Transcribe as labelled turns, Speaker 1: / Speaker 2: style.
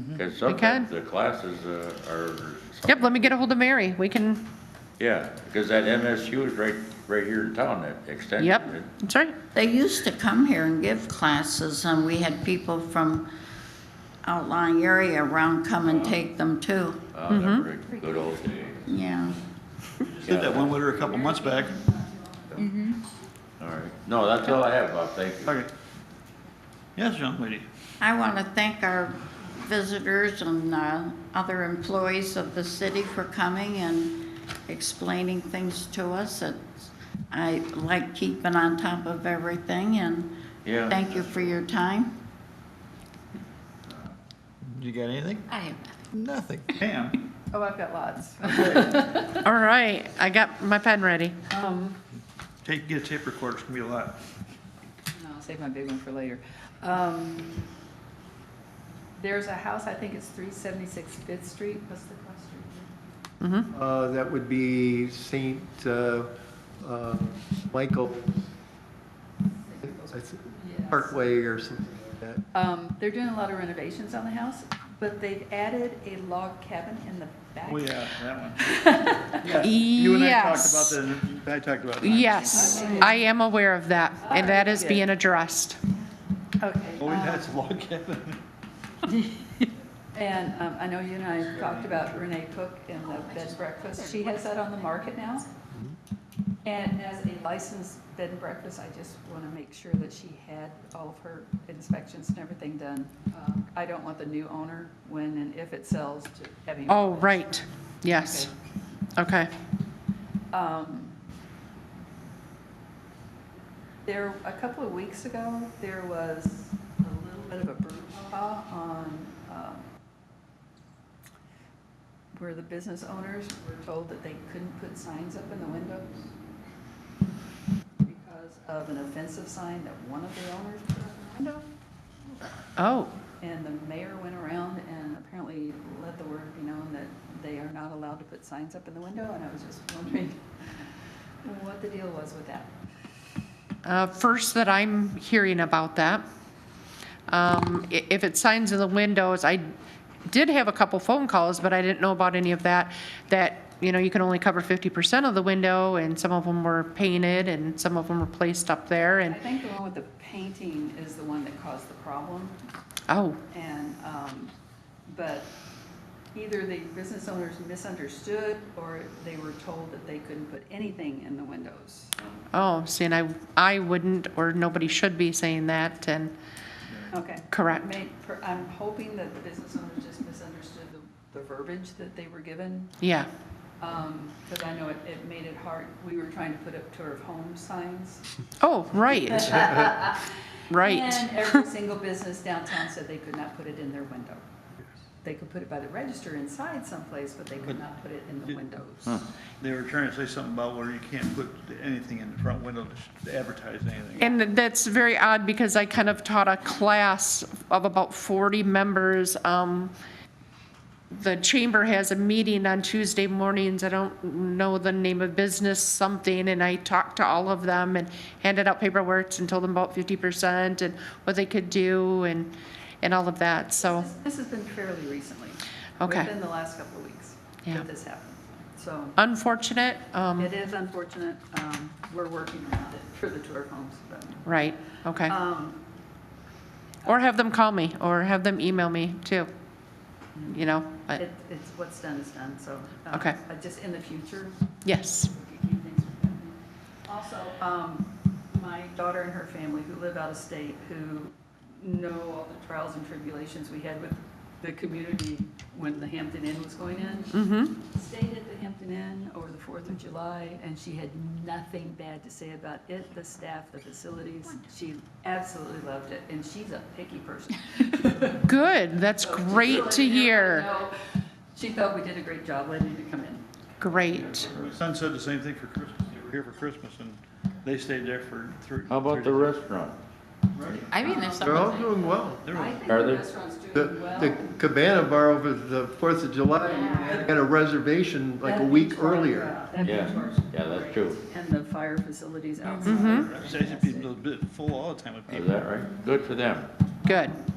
Speaker 1: Because
Speaker 2: We can.
Speaker 1: sometimes the classes uh, are,
Speaker 2: Yep, let me get a hold of Mary. We can,
Speaker 1: yeah, because that MSU is right, right here in town, that extension.
Speaker 2: yep, that's right.
Speaker 3: They used to come here and give classes, and we had people from outlying area around come and take them too.
Speaker 1: Oh,
Speaker 2: Mm-hmm.
Speaker 1: remember the good old days.
Speaker 3: Yeah.
Speaker 4: Did that one winter a couple months back.
Speaker 1: All right. No, that's all I have, Bob. Thank you.
Speaker 4: Okay. Yes, young lady.
Speaker 3: I want to thank our visitors and uh, other employees of the city for coming and explaining things to us. It's- I like keeping on top of everything, and
Speaker 1: Yeah.
Speaker 3: thank you for your time.
Speaker 4: You got anything?
Speaker 3: I have
Speaker 4: Nothing. Pam?
Speaker 5: Oh, I've got lots.
Speaker 2: All right, I got my pen ready.
Speaker 5: Um,
Speaker 4: Take, get a tape recorder, it's gonna be a lot.
Speaker 5: no, I'll save my big one for later. Um, There's a house, I think it's 376 Fifth Street, what's the cross street?
Speaker 6: Uh, That would be St. uh, uh, Michael that's
Speaker 5: Yes.
Speaker 6: Parkway or something like that.
Speaker 5: Um, They're doing a lot of renovations on the house, but they've added a log cabin in the back.
Speaker 4: Oh, yeah, that one. You and I talked about
Speaker 2: Yes,
Speaker 4: that, I talked about that.
Speaker 2: yes, I am aware of that, and that is being addressed.
Speaker 5: Okay.
Speaker 4: Oh,
Speaker 5: um,
Speaker 4: that's a log cabin.
Speaker 5: And um, I know you and I talked about Renee Cook and the bed and breakfast. She has that on the market now. And as a licensed bed and breakfast, I just want to make sure that she had all of her inspections and everything done. Um, I don't want the new owner, when and if it sells, to having.
Speaker 2: Oh, right, yes, okay.
Speaker 5: Um, There, a couple of weeks ago, there was a little bit of a brouhaha on um, where the business owners were told that they couldn't put signs up in the windows because of an offensive sign that one of the owners put up in the window.
Speaker 2: Oh,
Speaker 5: And the mayor went around and apparently let the word be known that they are not allowed to put signs up in the window, and I was just wondering what the deal was with that.
Speaker 2: uh, first that I'm hearing about that. Um, i- If it's signs in the windows, I did have a couple phone calls, but I didn't know about any of that, that, you know, you can only cover 50% of the window, and some of them were painted, and some of them were placed up there,
Speaker 5: I
Speaker 2: and,
Speaker 5: think the one with the painting is the one that caused the problem,
Speaker 2: oh,
Speaker 5: and, um, but either the business owners misunderstood, or they were told that they couldn't put anything in the windows.
Speaker 2: oh, see, and I, I wouldn't, or nobody should be saying that, and,
Speaker 5: Okay.
Speaker 2: Correct.
Speaker 5: May- per- I'm hoping that the business owners just misunderstood the the verbiage that they were given.
Speaker 2: yeah,
Speaker 5: Because Um, I know it, it made it hard, we were trying to put up tour of home signs.
Speaker 2: oh, right, right,
Speaker 5: And every single business downtown said they could not put it in their window. They could put it by the register inside someplace, but they could not put it in the windows.
Speaker 4: They were trying to say something about where you can't put anything in the front window to advertise anything.
Speaker 2: and that's very odd, because I kind of taught a class of about 40 members, um, the chamber has a meeting on Tuesday mornings, I don't know the name of business, something, and I talked to all of them and handed out paperwork and told them about 50% and what they could do and, and all of that, so.
Speaker 5: This has been fairly recently.
Speaker 2: Okay.
Speaker 5: Within the last couple of weeks
Speaker 2: Yeah.
Speaker 5: that this happened. So
Speaker 2: unfortunate, um,
Speaker 5: it is unfortunate, um, we're working around it for the tour of homes, but.
Speaker 2: right, okay.
Speaker 5: um,
Speaker 2: Or have them call me, or have them email me, too. You know, but,
Speaker 5: It, it's, what's done is done, so. uh,
Speaker 2: Okay.
Speaker 5: uh, Just in the future.
Speaker 2: yes,
Speaker 5: we can keep things from happening. Also, um, my daughter and her family who live out of state, who know all the trials and tribulations we had with the community when the Hampton Inn was going in,
Speaker 2: mm-hmm,
Speaker 5: stayed at the Hampton Inn over the Fourth of July, and she had nothing bad to say about it, the staff, the facilities. She absolutely loved it, and she's a picky person.
Speaker 2: good, that's
Speaker 5: So just
Speaker 2: great to
Speaker 5: letting everybody
Speaker 2: hear,
Speaker 5: know, She felt we did a great job letting her come in.
Speaker 2: great.
Speaker 4: My son said the same thing for Christmas. They were here for Christmas and they stayed there for three.
Speaker 1: How about the
Speaker 4: three-
Speaker 1: restaurant?
Speaker 3: I mean, there's
Speaker 6: They're all
Speaker 3: something.
Speaker 6: doing well.
Speaker 4: There
Speaker 5: I
Speaker 4: was,
Speaker 5: think
Speaker 1: Are
Speaker 5: the
Speaker 1: there-
Speaker 5: restaurant's
Speaker 6: The
Speaker 5: doing well.
Speaker 6: the Cabana Bar over the Fourth of July had a reservation like a
Speaker 5: That
Speaker 6: week
Speaker 5: beach bar,
Speaker 6: earlier.
Speaker 5: that beach
Speaker 1: Yeah.
Speaker 5: bar's
Speaker 1: Yeah, that's
Speaker 5: great.
Speaker 1: true.
Speaker 5: And the fire facilities outside.
Speaker 6: Mm-hmm.
Speaker 4: I was asking people, a bit full all the time with
Speaker 1: Is
Speaker 4: people.
Speaker 1: that right? Good for them.
Speaker 2: Good,